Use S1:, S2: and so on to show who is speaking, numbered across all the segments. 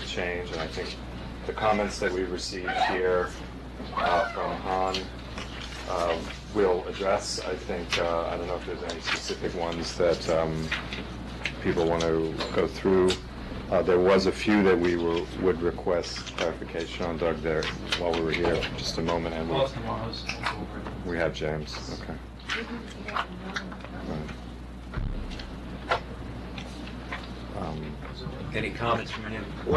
S1: change, and I think the comments that we received here uh, from Han uh, will address. I think, uh, I don't know if there's any specific ones that um, people want to go through. Uh, There was a few that we were- would request clarification on, Doug, there, while we were here, just a moment, and
S2: Well, it's
S1: we-
S2: tomorrow's.
S1: we have James, okay. Um,
S3: Any comments from you?
S4: Do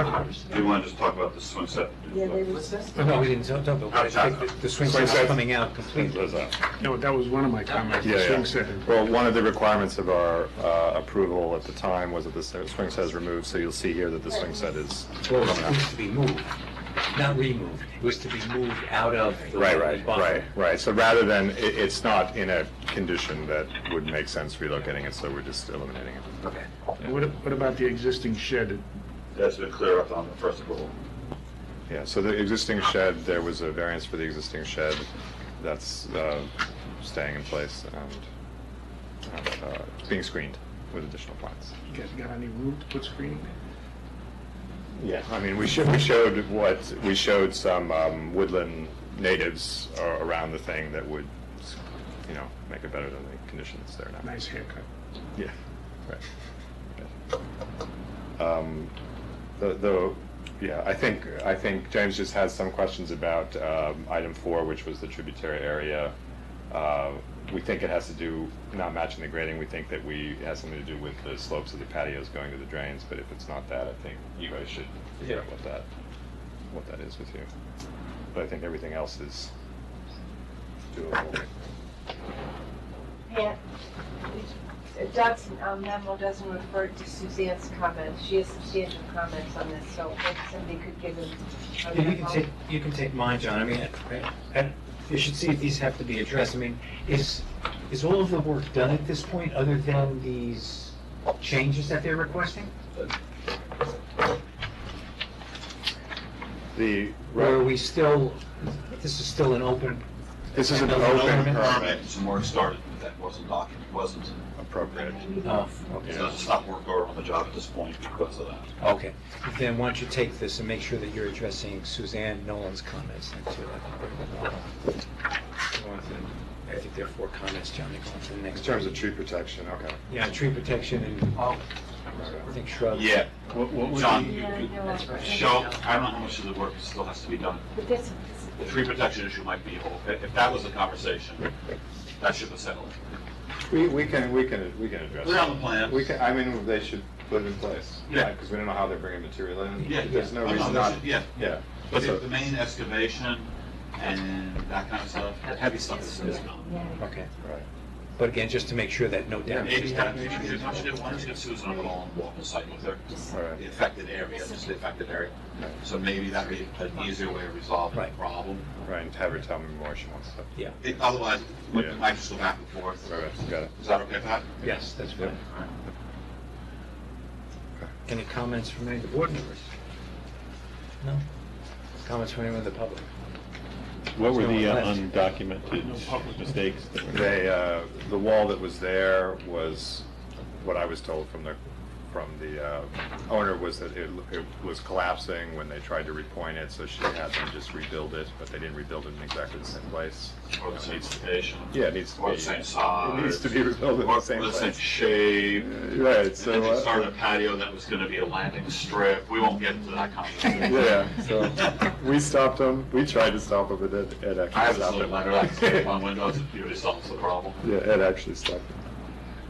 S4: you want to just talk about the swing set?
S5: Yeah, they were.
S2: What's this?
S3: No, we didn't talk about, I think the- the swing set's coming out completely.
S6: No, that was one of my comments,
S1: Yeah,
S6: swing
S1: yeah.
S6: set.
S1: Well, one of the requirements of our uh, approval at the time was that the s- swing set is removed, so you'll see here that the swing set is
S3: Well,
S1: coming
S3: it was
S1: out.
S3: to be moved, not removed, it was to be moved out of the
S1: Right, right,
S3: bottom.
S1: right, right. So rather than, i it's not in a condition that would make sense relocating it, so we're just eliminating it.
S3: Okay.
S6: What what about the existing shed?
S4: That's been clear up on the first approval.
S1: Yeah, so the existing shed, there was a variance for the existing shed, that's uh, staying in place and uh, being screened with additional plants.
S6: You guys got any room to put screening?
S1: Yeah, I mean, we showed, we showed what, we showed some um, woodland natives a- around the thing that would, you know, make it better than the conditions there now.
S6: Nice haircut.
S1: Yeah, right. Right. Um, tho- Though, yeah, I think, I think James just has some questions about um, item four, which was the tributary area. Uh, We think it has to do, not matching the grading, we think that we, it has something to do with the slopes of the patios going to the drains, but if it's not that, I think you guys should figure out what that, what that is with you. But I think everything else is doable.
S5: Yeah. Doug's um, memo doesn't refer to Suzanne's comments. She has substantial comments on this, so if somebody could give them. a
S3: Yeah, You can
S5: memo.
S3: take, you can take mine, John, I mean, I- I- you should see if these have to be addressed, I mean, is, is all of the work done at this point, other than these changes that they're requesting?
S1: The,
S3: Or are we still, this is still an open,
S1: this is an
S3: Another
S1: open
S3: element?
S1: permit.
S4: Some work started, but that wasn't documented, wasn't,
S1: appropriate.
S3: oh,
S4: it
S3: okay.
S4: doesn't stop work order on the job at this point because of that.
S3: Okay, then why don't you take this and make sure that you're addressing Suzanne Nolan's comments then too. I think they're- I think there are four comments, John, they're going to the next.
S1: In terms of tree protection, okay.
S3: Yeah, tree protection and, oh, I think shrubs.
S4: Yeah. John, you
S5: Yeah, I
S4: could
S5: know, I forgot.
S4: show, I don't know how much of the work still has to be done.
S5: But this,
S4: The tree protection issue might be, a whole- if if that was the conversation, that should have settled.
S1: We, we can, we can, we can address
S4: We're on the
S1: it.
S4: plan.
S1: We can, I mean, they should put it in place.
S4: Yeah.
S1: Because we don't know how they're bringing material in.
S4: Yeah, yeah.
S1: There's no
S4: Oh,
S1: reason
S4: they
S1: not,
S4: should- Yeah,
S1: yeah.
S4: but
S1: So-
S4: if the main excavation and that kind of stuff, the heavy stuff is is gone.
S5: yeah.
S3: Okay,
S1: Right.
S3: but again, just to make sure that no damage
S4: Maybe,
S3: is done.
S4: maybe you should do one, just get Susan on the wall and walk the site with her,
S1: All right.
S4: the affected area, just the affected area. So maybe that'd be an easier way of resolving the
S3: Right.
S4: problem.
S1: Right, and have her tell me more she wants to.
S3: Yeah,
S4: It- Otherwise, we
S1: Yeah.
S4: might just go back and forth.
S1: All right, got it.
S4: Is that okay, Pat?
S3: yes, that's fine. Any comments from any of the board members? No? Comments from anyone in the public?
S7: What were the uh,
S3: Left.
S7: undocumented mistakes? that were made?
S1: They, uh, the wall that was there was, what I was told from the, from the uh, owner was that it, it was collapsing when they tried to repoint it, so she had them just rebuild it, but they didn't rebuild it in exactly the same place.
S4: Or the
S1: It
S4: same
S1: needs to-
S4: location?
S1: Yeah, it needs to be.
S4: Or the same size?
S1: It needs to be rebuilt in
S4: Or
S1: the same
S4: the same
S1: place.
S4: shape?
S1: Right,
S4: And then
S1: so.
S4: they
S1: uh,
S4: started a patio that was gonna be a landing strip. We won't get into that conversation.
S1: Yeah, so we stopped them, we tried to stop them, but Ed, Ed actually stopped them.
S4: I have this little letter I can stick on windows if it solves the problem.
S1: Yeah, Ed actually stopped them.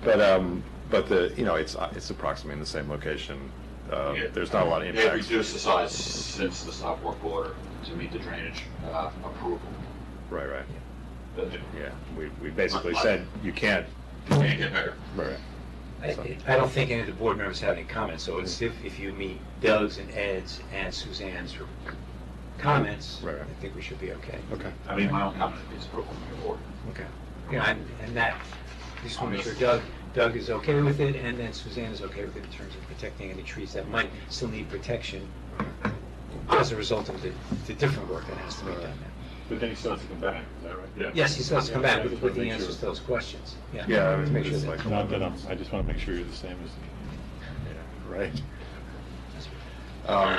S1: But, um, but the, you know, it's, uh, it's approximately in the same location. Uh,
S4: Yeah.
S1: There's not a lot of
S4: They've
S1: impacts.
S4: reduced the size since the stop work order to meet the drainage uh, approval.
S1: Right, right,
S4: But You
S1: yeah. We, we basically said, you can't.
S4: can't get better.
S1: Right.
S3: I I don't think any of the board members have any comments, so it's if, if you meet Doug's and Ed's and Suzanne's comments,
S1: Right, right.
S3: I think we should be okay.
S1: Okay.
S4: I mean, my own comment is approval from the board.
S3: Okay. Yeah, and, and that, just want to make sure Doug, Doug is okay with it, and then Suzanne is okay with it in terms of protecting any trees that might still need protection as a result of the, the different work that has to be done now.
S7: But then he still has to come back, is that right?
S3: Yes, he's supposed to come back with, with the answers to those questions, yeah.
S1: Yeah, I
S3: to
S1: mean,
S3: make sure
S1: it's
S3: that-
S1: like-
S7: Not that I'm, I just want to make sure you're the same as.
S1: Right. Um,